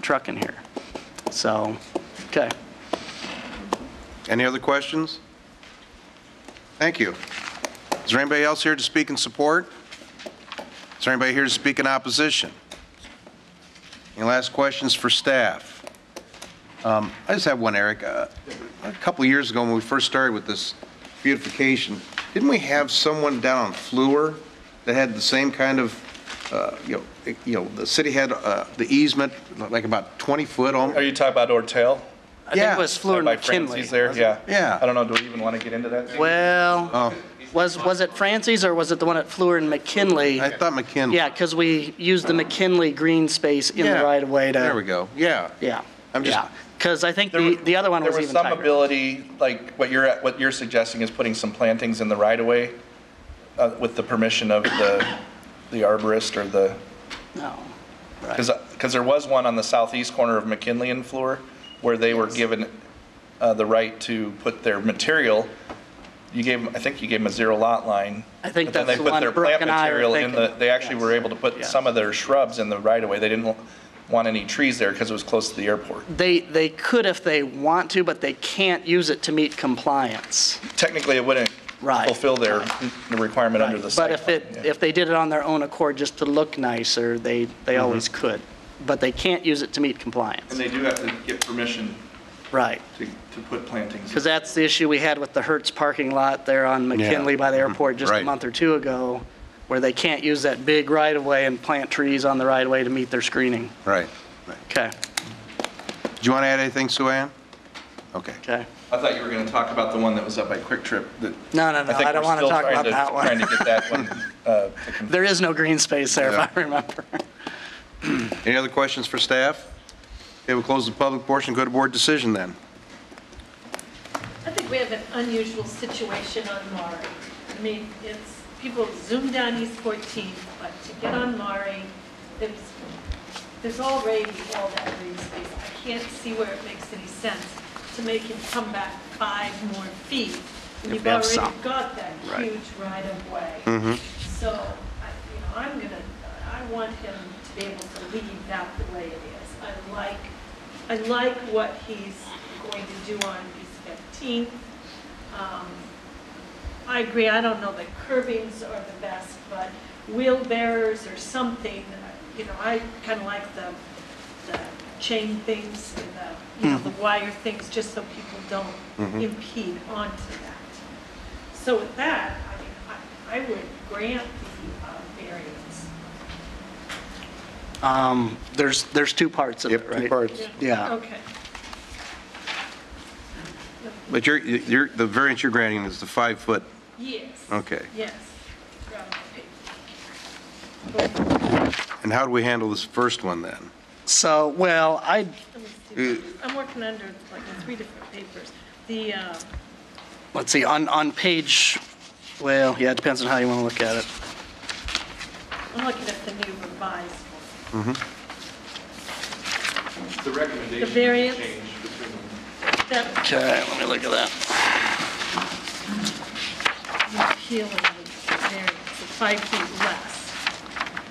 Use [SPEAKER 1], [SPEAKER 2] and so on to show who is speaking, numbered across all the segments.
[SPEAKER 1] truck in here. So, okay.
[SPEAKER 2] Any other questions? Thank you. Is there anybody else here to speak in support? Is there anybody here to speak in opposition? Any last questions for staff? Um, I just have one, Eric. Uh, A couple of years ago, when we first started with this beautification, didn't we have someone down on Fluor that had the same kind of, uh, you know, it- you know, the city had uh, the easement, like about 20 foot
[SPEAKER 3] Are
[SPEAKER 2] on?
[SPEAKER 3] you talking about Ortel?
[SPEAKER 1] I think
[SPEAKER 2] Yeah.
[SPEAKER 1] it was Fleur and
[SPEAKER 3] By
[SPEAKER 1] McKinley.
[SPEAKER 3] Francie's there, yeah.
[SPEAKER 2] Yeah.
[SPEAKER 3] I don't know, do we even want to get into that?
[SPEAKER 1] Well,
[SPEAKER 2] Oh,
[SPEAKER 1] was, was it Francie's or was it the one at Fleur and McKinley?
[SPEAKER 2] I thought McKinley.
[SPEAKER 1] Yeah, because we used the McKinley green space in the
[SPEAKER 2] Yeah.
[SPEAKER 1] right of way to.
[SPEAKER 2] There we go, yeah.
[SPEAKER 1] Yeah,
[SPEAKER 2] I'm just-
[SPEAKER 1] yeah. Because I think
[SPEAKER 3] There
[SPEAKER 1] the,
[SPEAKER 3] were-
[SPEAKER 1] the other one was even
[SPEAKER 3] There was some
[SPEAKER 1] tighter.
[SPEAKER 3] ability, like what you're, what you're suggesting is putting some plantings in the right of way uh, with the permission of the, the arborist or the,
[SPEAKER 1] No.
[SPEAKER 3] because, because there was one on the southeast corner of McKinley and Fleur where they were given uh, the right to put their material. You gave, 'em- I think you gave them a zero lot line.
[SPEAKER 1] I think
[SPEAKER 3] but then
[SPEAKER 1] that's the
[SPEAKER 3] they put
[SPEAKER 1] one
[SPEAKER 3] their
[SPEAKER 1] Brooke
[SPEAKER 3] plant
[SPEAKER 1] and I were
[SPEAKER 3] material in the-
[SPEAKER 1] thinking.
[SPEAKER 3] They actually were
[SPEAKER 1] Yes.
[SPEAKER 3] able to put
[SPEAKER 1] Yes.
[SPEAKER 3] some of their shrubs in the right of way. They didn't want any trees there because it was close to the airport.
[SPEAKER 1] They, they could if they want to, but they can't use it to meet compliance.
[SPEAKER 3] technically, it wouldn't
[SPEAKER 1] Right.
[SPEAKER 3] fulfill their the requirement under the site.
[SPEAKER 1] But if it,
[SPEAKER 3] plan, yeah.
[SPEAKER 1] if they did it on their own accord just to look nicer, they,
[SPEAKER 2] Mm-hmm.
[SPEAKER 1] they always could. But they can't use it to meet compliance.
[SPEAKER 3] And they do have to get permission
[SPEAKER 1] Right.
[SPEAKER 3] to, to put plantings.
[SPEAKER 1] Because that's the issue we had with the Hertz parking lot there on McKinley by the airport just a
[SPEAKER 2] Right.
[SPEAKER 1] month or two ago, where they can't use that big right-of-way and plant trees on the right-of-way to meet their screening.
[SPEAKER 2] Right. right.
[SPEAKER 1] Okay,
[SPEAKER 2] Do you want to add anything, Sue Ann? Okay.
[SPEAKER 1] okay.
[SPEAKER 3] I thought you were going to talk about the one that was up by Quick Trip that.
[SPEAKER 1] No, no, no,
[SPEAKER 3] think
[SPEAKER 1] I don't
[SPEAKER 3] we're
[SPEAKER 1] want to
[SPEAKER 3] still
[SPEAKER 1] talk
[SPEAKER 3] trying
[SPEAKER 1] about
[SPEAKER 3] to-
[SPEAKER 1] that
[SPEAKER 3] Trying
[SPEAKER 1] one.
[SPEAKER 3] to get that one, uh, to con-
[SPEAKER 1] There is no green space there,
[SPEAKER 2] Yeah.
[SPEAKER 1] if I remember.
[SPEAKER 2] Any other questions for staff? Okay, we'll close the public portion, go to board decision then.
[SPEAKER 4] I think we have an unusual situation on Maury. I mean, it's, people zoom down East 14, but to get on Maury, there's, there's already all that green space. I can't see where it makes any sense to make him come back five more feet. when
[SPEAKER 1] If
[SPEAKER 4] You've
[SPEAKER 1] we have
[SPEAKER 4] already
[SPEAKER 1] some.
[SPEAKER 4] got that
[SPEAKER 1] Right.
[SPEAKER 4] huge right of way. So, I- you know, I'm gonna, I want him to be able to leave that the way it is. I like, I like what he's going to do on East 15th. Um, I agree, I don't know that curbings are the best, but wheel bearers or something, you know, I kind of like the, the chain things and the, you know, the wire things, just so people don't impede onto that. So with that, I mean, I, I would grant the uh, variance.
[SPEAKER 1] Um, There's, there's two parts of it, right? Yeah.
[SPEAKER 4] Okay.
[SPEAKER 2] But you're, you're, the variance you're granting is the five foot.
[SPEAKER 4] Yes.
[SPEAKER 2] Okay.
[SPEAKER 4] Yes. Right. Let
[SPEAKER 2] And how do we handle this first one then?
[SPEAKER 1] So, well, I,
[SPEAKER 4] me
[SPEAKER 1] Uh,
[SPEAKER 4] see. I'm working under like three different papers. The, uh,
[SPEAKER 1] let's see, on, on page, well, yeah, it depends on how you want to look at it.
[SPEAKER 4] I'm looking at the new revised one.
[SPEAKER 3] The recommendation.
[SPEAKER 4] The variance.
[SPEAKER 3] changed between them.
[SPEAKER 4] That
[SPEAKER 1] Okay, let me look at that.
[SPEAKER 4] was appealing the variance, the five feet less.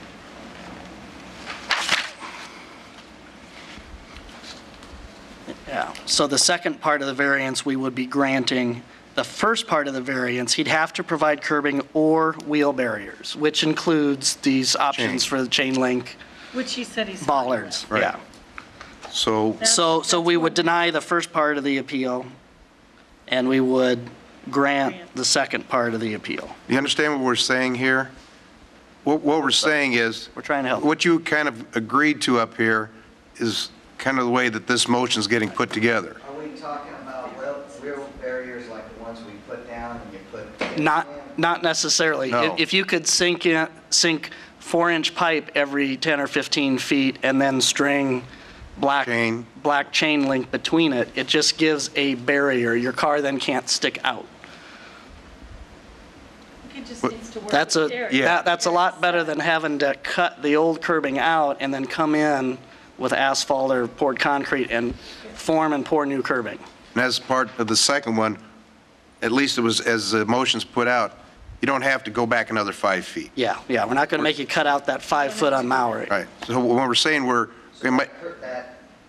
[SPEAKER 1] Yeah, so the second part of the variance we would be granting, the first part of the variance, he'd have to provide curbing or wheel barriers, which includes these options for the chain link
[SPEAKER 4] Which he said he's. fine with.
[SPEAKER 1] bollards,
[SPEAKER 2] Right.
[SPEAKER 1] yeah.
[SPEAKER 2] So,
[SPEAKER 1] So, so we would deny the first part of the appeal, and we would grant the second part of the appeal.
[SPEAKER 2] you understand what we're saying here? What, what we're saying is,
[SPEAKER 1] We're trying to help.
[SPEAKER 2] what you kind of agreed to up here is kind of the way that this motion's getting put together.
[SPEAKER 5] Are we talking about real, real barriers like the ones we put down and you put?
[SPEAKER 1] Not, not necessarily.
[SPEAKER 2] No.
[SPEAKER 1] If- If you could sink in, sink four-inch pipe every 10 or 15 feet and then string black,
[SPEAKER 2] Chain.
[SPEAKER 1] black chain link between it, it just gives a barrier. Your car then can't stick out.
[SPEAKER 4] He just needs to work.
[SPEAKER 1] That's a,
[SPEAKER 4] with Derek.
[SPEAKER 1] that- that's a lot better than having to cut the old curbing out and then come in with asphalt or poured concrete and form and pour new curbing.
[SPEAKER 2] And as part of the second one, at least it was, as the motion's put out, you don't have to go back another five feet.
[SPEAKER 1] Yeah, yeah, we're not going to make you cut out that five foot on Maury.
[SPEAKER 2] Right, so when we're saying we're, we might-
[SPEAKER 5] That